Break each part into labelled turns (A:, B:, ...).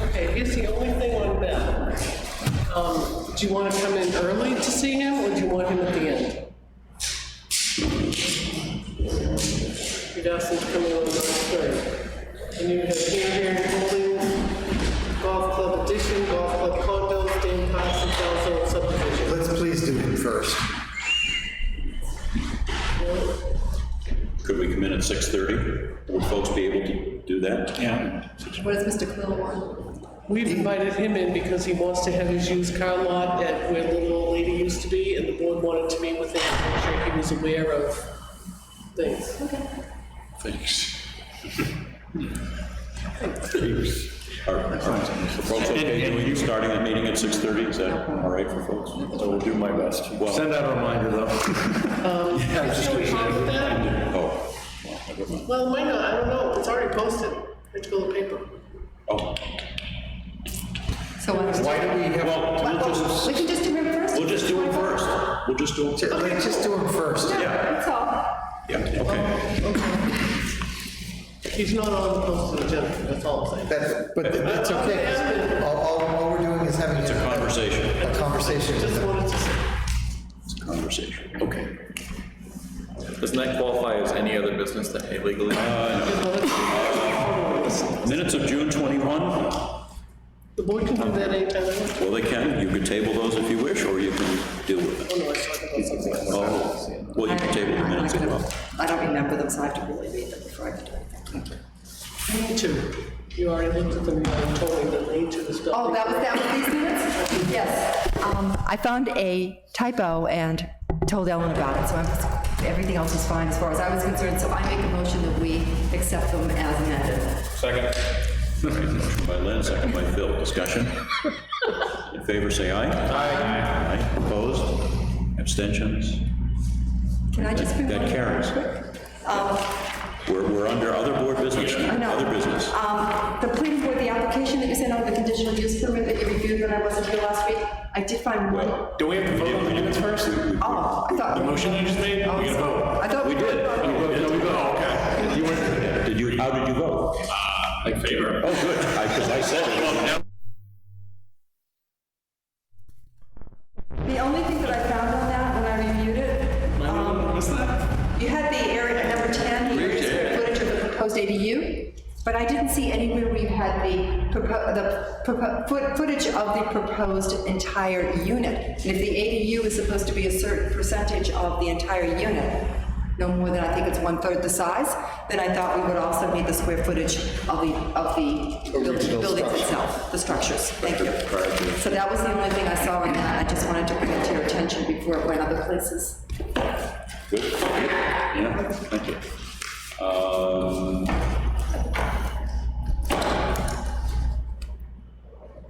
A: Okay, here's the only thing on Beth. Um, do you want to come in early to see him, or do you want him at the end? You'd ask him to come in on the third. And you have here, here, and holding, golf club addition, golf club condos, Dan Parsons, also subdivision.
B: Let's please do him first.
C: Could we come in at 6:30? Would folks be able to do that?
D: Yeah.
E: What does Mr. Quill want?
A: We've invited him in because he wants to have his used car lot at where the little old lady used to be, and the board wanted to meet with him to make sure he was aware of things.
D: Thanks.
C: Are are- are folks okay with you starting that meeting at 6:30? Is that all right for folks?
F: I will do my best.
C: Well-
F: Send out a reminder, though.
A: Is there any problem with that?
C: Oh, well, I don't know.
A: Well, might not, I don't know, it's already posted, it's on the paper.
C: Oh,
E: So why don't
B: Why do we
C: well,
B: have,
C: we'll just,
E: we, we can just do him first?
C: we'll just do it first. We'll just do it.
B: let's just do him first.
E: No,
C: yeah.
E: That's all.
C: Yeah, okay.
A: He's not on the posted agenda, that's all I'm saying.
B: That's, but that's okay. All, all, all we're doing is having
C: It's a
B: a
C: conversation.
B: a conversation.
A: Just wanted to say.
C: It's a conversation. Okay.
G: Doesn't that qualify as any other business that may legally?
C: Minutes of June 21?
A: The board can do that anytime Oh, they want.
C: Well, they can, you can table those if you wish, or you can deal with
A: Oh,
C: it.
A: no, I was talking about something else.
C: Oh, well, you can table the
E: I'm not
C: minutes as
E: gonna-
C: well.
E: I don't remember them, so I have to really read them before I can do anything.
A: Need to, you already looked at them, you told me that need to, stuff.
E: Oh, that was, that was these minutes? Yes. Um, I found a typo and told Ellen about it, so I'm, everything else is fine as far as I was concerned, so I make a motion that we accept them as amended.
G: Second.
C: All right, Motion by Lynn, second by Phil, discussion. In favor, say aye. Aye. Aye, opposed, abstentions,
E: Can I just bring one? um,
C: that carries. We're, we're under other board business,
E: I know.
C: other business.
E: Um, the planning board, the application that you sent out, the conditional use permit that you reviewed when I wasn't here last week, I did find one. Oh,
F: Do we have to vote on the minutes first? The
E: I thought.
F: motion you just made? We gotta vote.
E: Oh. I thought.
C: We did.
F: Oh, we vote- no, we vote, okay. You weren't, Uh,
C: Did you, how did you vote?
F: in favor.
C: Oh, good, because I said it.
E: The only thing that I found on that when I reviewed it. um, You had the area at number 10, the area square footage of the proposed ADU, but I didn't see anywhere where you had the, propo- the propo- foot- footage of the proposed entire unit. And if the ADU is supposed to be a certain percentage of the entire unit, no more than, I think it's one-third the size, then I thought we would also need the square footage of the, of the building- buildings itself, the structures. Thank you. So that was the only thing I saw in that. I just wanted to bring it to your attention before it went other places.
C: Good, yeah, thank you. Um,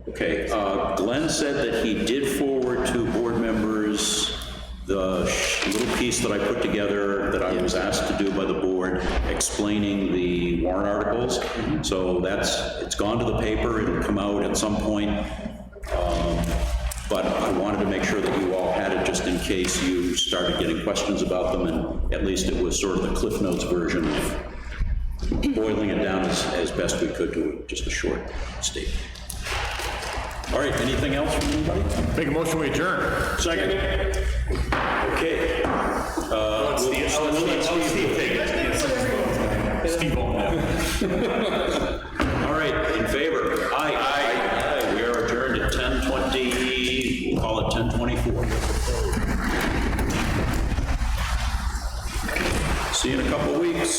C: Okay, uh, Glenn said that he did forward to board members the sh- little piece that I put together that I was asked to do by the board explaining the warrant articles. So that's, it's gone to the paper, it'll come out at some point. Um, But I wanted to make sure that you all had it just in case you started getting questions about them and at least it was sort of the Cliff Notes version of boiling it down as, as best we could to just a short statement. All right, anything else from anybody?
F: Make a motion, we adjourn.
C: Second. Okay. Uh, What's the,
F: Steve Ballmer.
C: All right, in favor? Aye. Aye. We are adjourned at 10:20, we'll call it 10:24. See you in a couple of weeks.